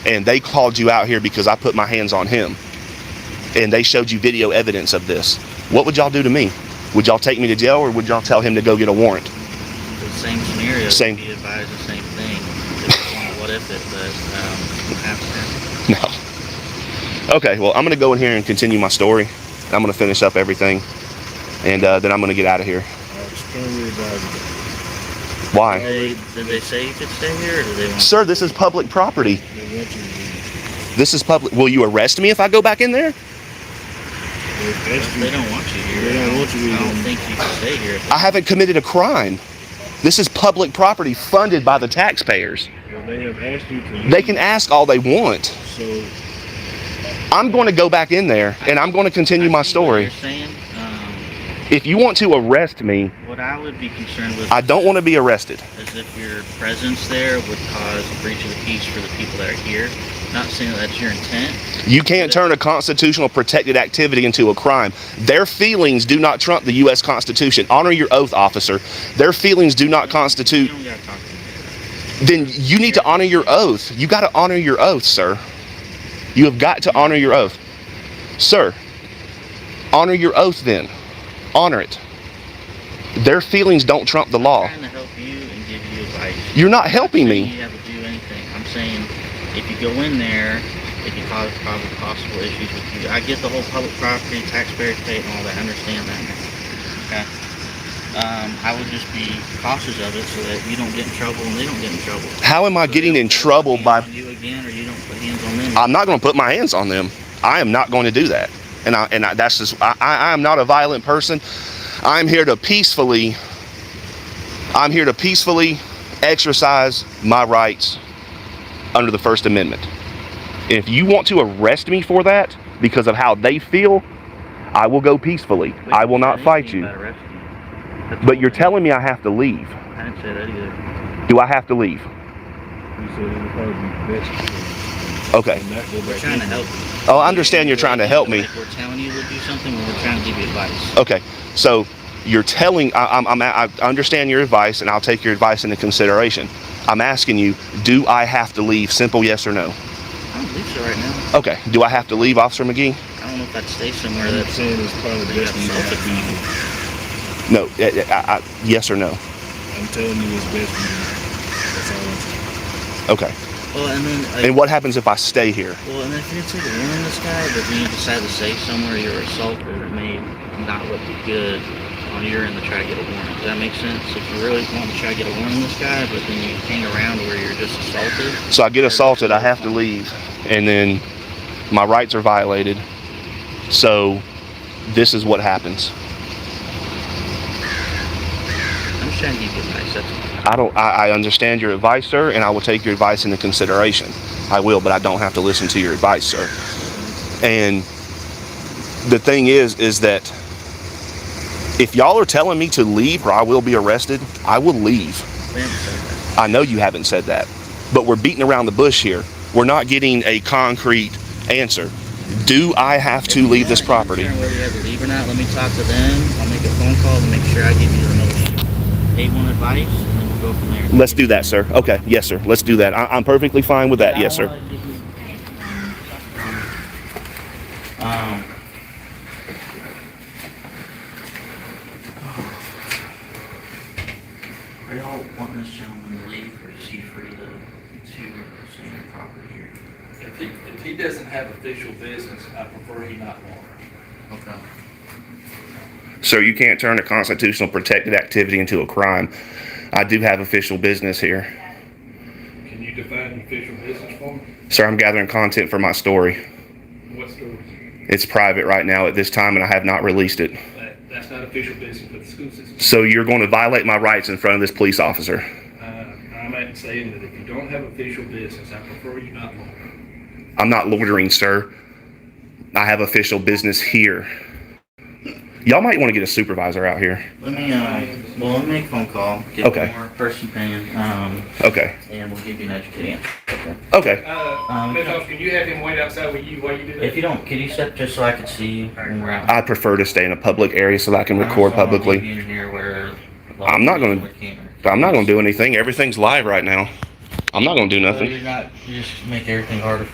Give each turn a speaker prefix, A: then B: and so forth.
A: and they called you out here because I put my hands on him and they showed you video evidence of this, what would y'all do to me? Would y'all take me to jail or would y'all tell him to go get a warrant?
B: The same scenario.
A: Same.
B: He advised the same thing. It's kind of what if it, but um, absent.
A: No. Okay, well, I'm going to go in here and continue my story. and I'm going to finish up everything and uh, then I'm going to get out of here.
C: I was totally about
A: Why?
B: They, did they say you could stay here, or did they want?
A: Sir, this is public property.
C: they want you to be.
A: This is public. Will you arrest me if I go back in there?
C: They arrest you.
B: They don't want you here.
C: They don't want you
B: I don't
C: here.
B: think you can stay here.
A: I haven't committed a crime. This is public property funded by the taxpayers.
C: Well, They have asked you to.
A: They can ask all they want.
C: So
A: I'm going to go back in there and I'm going to continue
B: I
A: my
B: see what
A: story.
B: You're saying, um,
A: If you want to arrest me,
B: what I would be concerned with.
A: I don't want to be arrested.
B: as if your presence there would cause a breach of the peace for the people that are here. Not saying that that's your intent.
A: You can't turn a constitutional protected activity into a crime. Their feelings do not trump the U.S. Constitution. Honor your oath, officer. Their feelings do not
B: You
A: constitute.
B: don't gotta talk to me.
A: Then you need to honor your oath. You got to honor your oath, sir. You have got to honor your oath. Sir, honor your oath then. Honor it. Their feelings don't trump the law.
B: I'm trying to help you and give you advice.
A: You're not Uh, helping
B: Saying
A: me.
B: You have to do anything. I'm saying if you go in there, it can cause probably possible issues with you. I get the whole public property, taxpayers pay and all that. I understand that. Okay. Um, I would just be cautious of it so that you don't get in trouble and they don't get in trouble.
A: How am I
B: So they
A: getting in
B: don't put
A: trouble
B: hands
A: by
B: on you again, or you don't put hands on them.
A: I'm not going to put my hands on them. I am not going to do that. And I, and I, that's just, I, I I am not a violent person. I'm here to peacefully, I'm here to peacefully exercise my rights under the First Amendment. If you want to arrest me for that because of how they feel, I will go peacefully. I will not fight you. But you're telling me I have to leave.
B: I didn't say that either.
A: Do I have to leave?
C: he said it would probably be best to
A: Okay.
C: not go back.
B: We're trying to
C: in.
B: help.
A: Oh, I understand you're trying to help me.
B: Like we're telling you to do something, when we're trying to give you advice.
A: Okay, so you're telling I, I'm, I'm I understand your advice and I'll take your advice into consideration. I'm asking you, do I have to leave? Simple yes or no.
B: I don't believe so right now.
A: Okay, do I have to leave, Officer McGee?
B: I don't know if I'd stay somewhere
C: I'm
B: that's.
C: saying it's probably
B: They
C: best
B: got
C: to not
B: something.
C: be. here.
A: No. I, I, I, yes or no.
C: I'm telling you it's best to not. That's all I'm saying.
A: Okay.
B: Well, and then. Like,
A: Mm-hmm. And what happens if I stay here?
B: well, and if you take a warning this guy, but then you decide to stay somewhere, you're assaulted, it may not look good on your end to try to get a warning. Does that make sense? If you really want to try to get a warning this guy, but then you hang around where you're just assaulted.
A: So I get assaulted, I have to leave, and then my rights are violated. So this is what happens.
B: I'm just trying to give you advice. That's all.
A: I don't. I, I understand your advice, sir, and I will take your advice into consideration. I will, but I don't have to listen to your advice, sir. And the thing is, is that if y'all are telling me to leave or I will be arrested, I will leave.
B: They haven't said that.
A: I know you haven't said that, but we're beating around the bush here. We're not getting a concrete answer. Do I have
B: If
A: to
B: you
A: leave this
B: want to
A: property?
B: determine Whether you have to leave or not, let me talk to them. I'll make a phone call to make sure I give you the most they want advice, and then we'll go from there.
A: Let's do that, sir. Okay, yes, sir. Let's do that. I, I'm perfectly fine with that.
B: I
A: Yes, sir.
B: wanna give you- Um, Are y'all wanting this gentleman to leave, or is he free to, to stay in the property here?
D: If he, if he doesn't have official business, I prefer he not water.
B: Okay.
A: Sir, you can't turn a constitutional protected activity into a crime. I do have official business here.
D: Can you define official business for me?
A: Sir, I'm gathering content for my story.
D: What's the,
A: It's private right now at this time and I have not released it.
D: that, that's not official business with the school system.
A: So you're going to violate my rights in front of this police officer.
D: Uh, I'm at saying that if you don't have official business, I prefer you not water.
A: I'm not loitering, sir. I have official business here. Y'all might want to get a supervisor out here.
B: Let me, um, well, let me make a phone call. get
A: Okay.
B: more Person opinion, um,
A: Okay.
B: and we'll give you an educated answer. Um,
A: Okay.
D: Uh, Ms. Hobbs, can you have him wait outside with you while you do that?
B: If you don't, can you step just so I can see you when we're out?
A: I prefer to stay in a public area so that I can record publicly.
B: I'm
A: I'm not gonna- I'm not going to do anything. Everything's live right now. I'm not gonna do nothing.
B: You're not, you just make everything harder